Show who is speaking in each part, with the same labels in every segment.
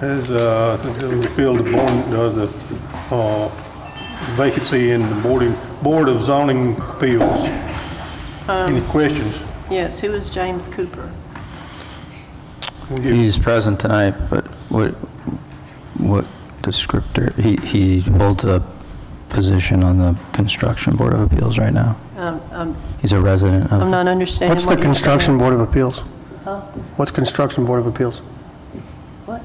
Speaker 1: Has, uh, to fill the board, uh, the, uh, vacancy in the boarding, Board of Zoning Appeals. Any questions?
Speaker 2: Yes, who is James Cooper?
Speaker 1: We'll give-
Speaker 3: He's present tonight, but what, what descriptor, he, he holds a position on the Construction Board of Appeals right now.
Speaker 2: Um, um,
Speaker 3: He's a resident of.
Speaker 2: I'm not understanding
Speaker 4: What's
Speaker 2: what
Speaker 4: the
Speaker 2: you're saying.
Speaker 4: Construction Board of Appeals?
Speaker 2: Huh?
Speaker 4: What's Construction Board of Appeals?
Speaker 2: What?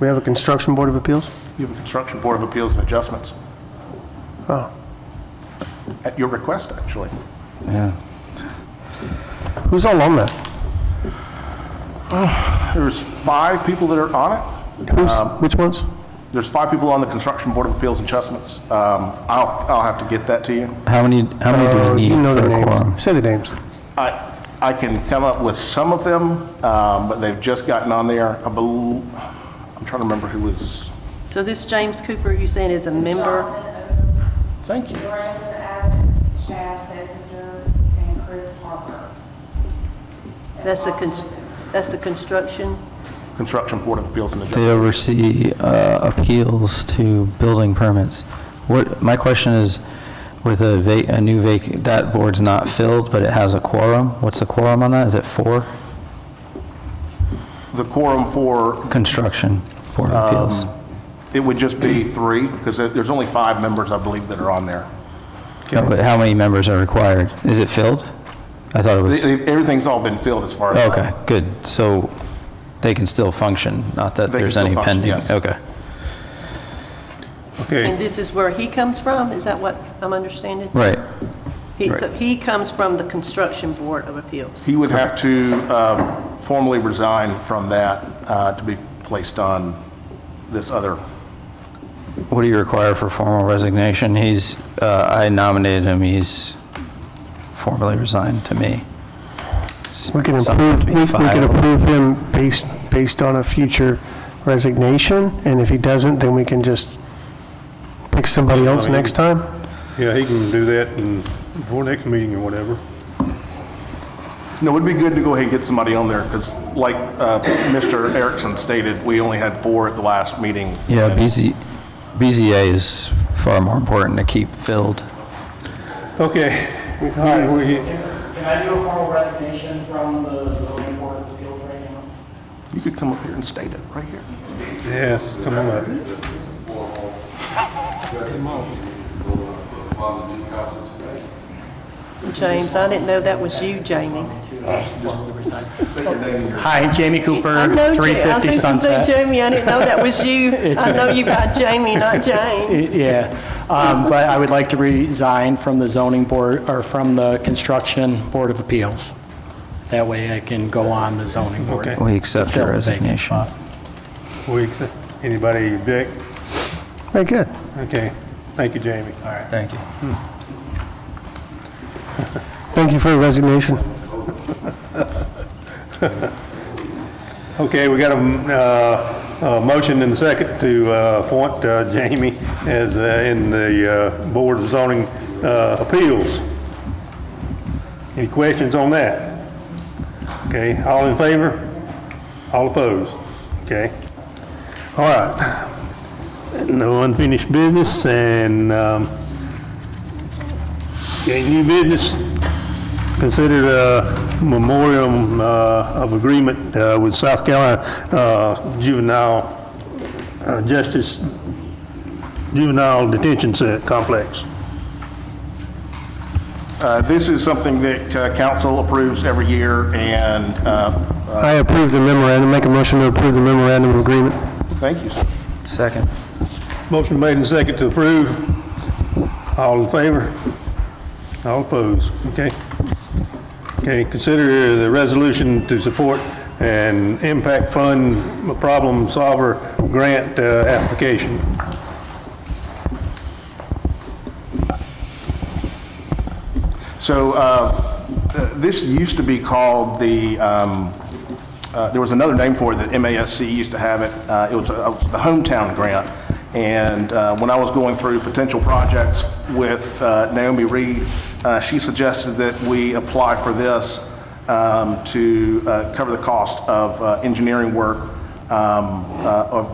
Speaker 4: We have a Construction Board of Appeals?
Speaker 5: You have a Construction Board of Appeals and Adjustments,
Speaker 4: Oh,
Speaker 5: at your request, actually.
Speaker 3: Yeah.
Speaker 4: who's all on that?
Speaker 5: There's five people that are on it.
Speaker 4: Who's, which ones?
Speaker 5: There's five people on the Construction Board of Appeals and Adjustments. Um, I'll, I'll have to get that to you.
Speaker 3: How many, how
Speaker 4: Oh,
Speaker 3: many do
Speaker 4: You
Speaker 3: we
Speaker 4: know
Speaker 3: need
Speaker 4: their
Speaker 3: for a quorum?
Speaker 4: names. Say the names.
Speaker 5: I, I can come up with some of them, um, but they've just gotten on there. I bel I'm trying to remember who was,
Speaker 2: So this James Cooper, you saying is a member?
Speaker 5: thank you.
Speaker 6: Miranda Allen, Chad Messenger, and Chris Harper.
Speaker 2: That's the, cons- that's the construction?
Speaker 5: Construction Board of Appeals and
Speaker 3: They
Speaker 5: Adjustments.
Speaker 3: oversee uh, appeals to building permits. What, my question is, with a va, a new vac, that board's not filled, but it has a quorum, what's the quorum on that? Is it four?
Speaker 5: The quorum for,
Speaker 3: Construction Board of
Speaker 4: Um,
Speaker 3: Appeals.
Speaker 5: it would just be three, because there's only five members, I believe, that are on there.
Speaker 3: No, but How many members are required? Is it filled? I thought it
Speaker 5: They-
Speaker 3: was,
Speaker 5: they- Everything's all been filled as far as.
Speaker 3: okay, good. So they can still function, not that
Speaker 5: They can
Speaker 3: there's
Speaker 5: still
Speaker 3: any
Speaker 5: function,
Speaker 3: pending?
Speaker 5: yes.
Speaker 3: Okay.
Speaker 2: And
Speaker 1: Okay,
Speaker 2: this is where he comes from? Is that what I'm understanding?
Speaker 3: Right,
Speaker 2: He- So he comes from the Construction Board of Appeals.
Speaker 5: He would have to um, formally resign from that uh, to be placed on this other.
Speaker 3: What do you require for formal resignation? He's, uh, I nominated him, he's formally resigned to me.
Speaker 4: We can
Speaker 3: Something
Speaker 4: approve,
Speaker 3: to be
Speaker 4: we we can
Speaker 3: filed.
Speaker 4: approve him based, based on a future resignation, and if he doesn't, then we can just pick somebody else next time?
Speaker 1: yeah, he can do that in, before next meeting or whatever.
Speaker 5: No, it'd be good to go ahead and get somebody on there, because like uh, Mr. Erickson stated, we only had four at the last meeting.
Speaker 3: Yeah,
Speaker 5: And-
Speaker 3: BZ, BZA is far more important to keep filled.
Speaker 1: Okay, all right, we,
Speaker 7: Can I do a formal resignation from the zoning board of appeals right now?
Speaker 5: You could come up here and state it right here.
Speaker 1: yes, come on up.
Speaker 2: James, I didn't know that was you, Jamie.
Speaker 8: Hi, Jamie
Speaker 2: I
Speaker 8: Cooper,
Speaker 2: know Ja-
Speaker 8: 350
Speaker 2: I think you said
Speaker 8: Sunset.
Speaker 2: Jamie, I didn't know that was you. I know you got Jamie, not James.
Speaker 8: Yeah, um, but I would like to resign from the zoning board, or from the construction board of appeals. That way I can go on the zoning board.
Speaker 1: Okay.
Speaker 3: We accept
Speaker 8: Fill
Speaker 3: your
Speaker 8: the vacant
Speaker 3: resignation.
Speaker 8: spot.
Speaker 1: We, accept- anybody object?
Speaker 4: Very good.
Speaker 1: Okay, thank you, Jamie.
Speaker 3: Thank you.
Speaker 4: Thank you for your resignation.
Speaker 1: Okay, we got a, mm, uh, a motion and a second to uh, appoint uh, Jamie as uh, in the uh, Board of Zoning uh, Appeals. Any questions on that? Okay, all in favor? All opposed? Okay. All right. No unfinished business and um, okay, new business. Consider a memoriam uh, of agreement uh, with South Carolina uh, Juvenile uh, Justice Juvenile Detention Cent- Complex.
Speaker 5: Uh, This is something that uh, council approves every year, and uh, uh,
Speaker 4: I approve the memorandum, make a motion to approve the memorandum of agreement.
Speaker 5: thank you, sir.
Speaker 3: Second.
Speaker 1: Motion made and second to approve. All in favor? All opposed? Okay. Okay, consider the resolution to support an impact fund problem solver grant uh, application.
Speaker 5: So uh, th- this used to be called the, um, uh, there was another name for it that MASC used to have it. Uh, It was uh, the hometown grant. And uh, when I was going through potential projects with uh, Naomi Reed, uh, she suggested that we apply for this um, to uh, cover the cost of uh, engineering work um, uh, of